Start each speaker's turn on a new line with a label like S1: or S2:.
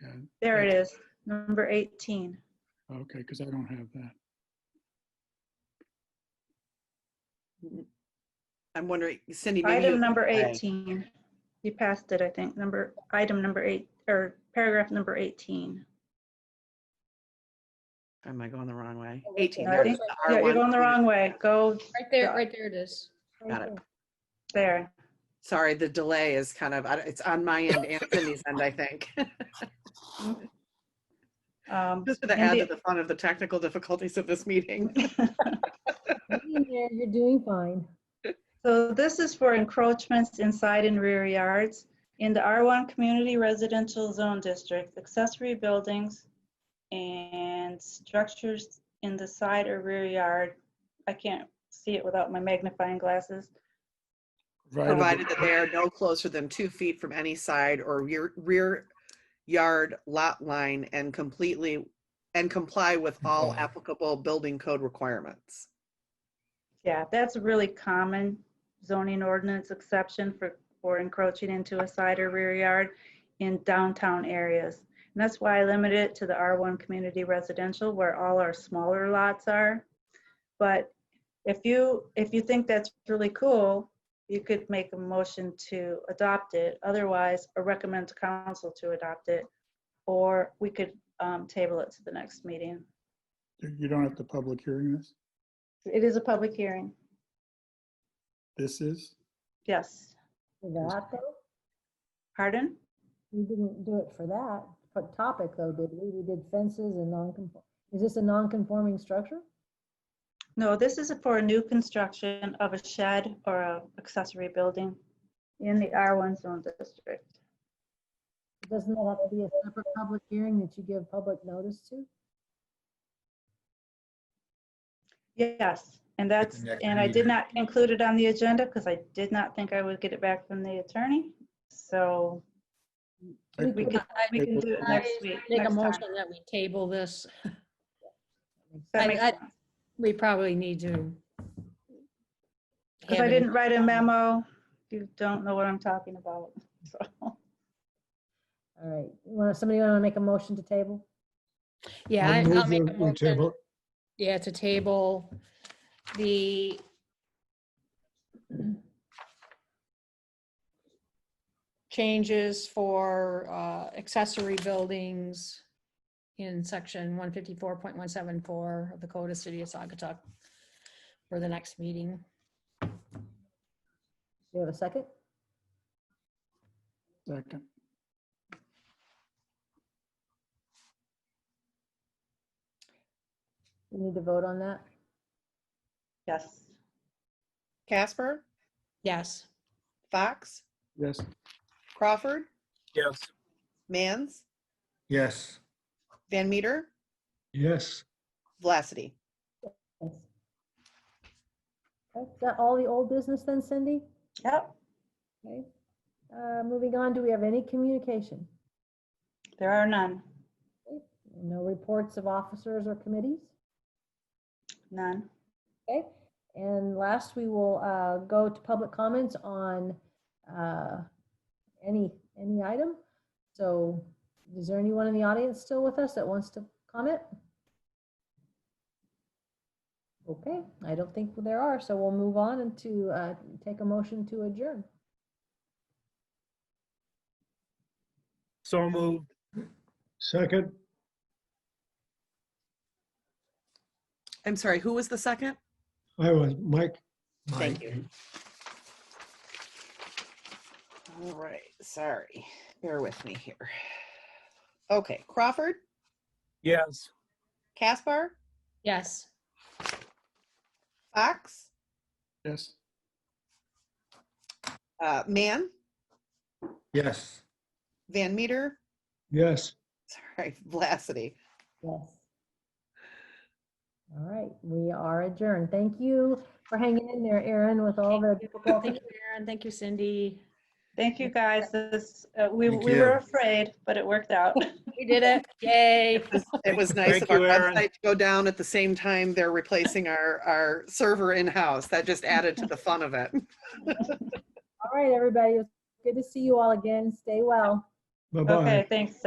S1: that?
S2: There it is, number 18.
S1: Okay, because I don't have that.
S3: I'm wondering, Cindy, maybe
S2: Item
S3: you,
S2: number
S4: Aye.
S2: 18. You passed it, I think, number, item number eight, or paragraph number 18.
S3: am I going the wrong way?
S5: Oh, okay.
S3: 18,
S2: I
S3: there it
S2: think-
S3: is. the
S2: Yeah, you're
S3: R1.
S2: going the wrong way. Go
S5: Right there,
S3: Got it.
S5: right there it is.
S3: Got it.
S2: there.
S3: Sorry, the delay is kind of, I don't- it's on my end and Cindy's end, I think.
S2: Um,
S3: Just for the add to the fun of the technical difficulties of this meeting.
S5: Being there, You're doing fine.
S2: So this is for encroachments inside and rear yards. In the R1 Community Residential Zone District, accessory buildings and structures in the side or rear yard, I can't see it without my magnifying glasses,
S3: Provided that they are no closer than two feet from any side or rear, rear yard lot line and completely, and comply with all
S1: Comply.
S3: applicable building code requirements.
S2: Yeah, that's a really common zoning ordinance exception for, for encroaching into a side or rear yard in downtown areas. And that's why I limit it to the R1 community residential where all our smaller lots are. But if you, if you think that's really cool, you could make a motion to adopt it. Otherwise, or recommend to council to adopt it. Or we could um, table it to the next meeting.
S1: You you don't have to public hearing this?
S2: It is a public hearing.
S1: This is?
S2: Yes.
S5: For that, though,
S2: Pardon?
S5: we didn't do it for that, for topic though, did we? We did fences and non-conform, is this a non-conforming structure?
S2: No, this is for a new construction of a shed or a accessory building in the R1 zone district.
S5: Doesn't that have to be a separate public hearing that you give public notice to?
S2: Yes, and that's,
S6: next
S2: and I did
S6: meeting.
S2: not include it on the agenda because I did not think I would get it back from the attorney. So we can, we can do it next week.
S7: Make a
S2: next time.
S7: motion that we table this.
S2: That
S7: I-
S2: makes
S7: I-
S2: sense.
S7: We probably need to.
S2: Because
S7: have
S2: I
S7: it-
S2: didn't write a memo, you don't know what I'm talking about. So
S5: All right, want, somebody want to make a motion to table?
S7: Yeah, I- I'll make a
S6: We
S7: motion.
S6: table-
S7: Yeah, to table the. Changes for uh, accessory buildings in section one fifty-four point one seven four of the Code of City of Sagatuck for the next meeting.
S5: Do you have a second?
S1: Second.
S5: We need to vote on that?
S2: Yes,
S3: Casper,
S7: Yes.
S3: Fox,
S1: Yes,
S3: Crawford,
S6: Yes.
S3: Mans,
S6: Yes.
S3: Van Meter,
S6: Yes.
S3: Vlacity.
S5: Yes. Okay, Is that all the old business then, Cindy?
S2: yep,
S5: Okay. Uh, Moving on, do we have any communication?
S2: there are none,
S5: No reports of officers or committees?
S2: none.
S5: Okay, and last, we will uh, go to public comments on uh, any, any item. So is there anyone in the audience still with us that wants to comment? Okay, I don't think there are, so we'll move on and to uh, take a motion to adjourn.
S6: So moved. Second.
S3: I'm sorry, who was the second?
S6: I was, Mike.
S3: Thank
S6: Mike.
S3: you. All right, sorry. Bear with me here. Okay, Crawford,
S6: Yes.
S3: Caspar,
S7: Yes.
S3: Fox,
S1: yes.
S3: uh, Mann,
S6: Yes.
S3: Van Meter,
S6: Yes.
S3: sorry, Vlacity.
S5: Yes. All right, we are adjourned. Thank you for hanging in there, Erin, with all the difficult
S7: Thank you, Aaron. Thank you, Cindy.
S2: Thank you, guys. This, uh, we,
S6: Thank
S2: we were
S6: you.
S2: afraid, but it worked out.
S7: We did it. Yay.
S3: It was nice of
S6: Thank
S3: our
S6: you, Erin.
S3: website to go down at the same time they're replacing our, our server in-house. That just added to the fun of it.
S5: All right, everybody. It was Good to see you all again. Stay well.
S6: Bye-bye.
S2: Okay, thanks.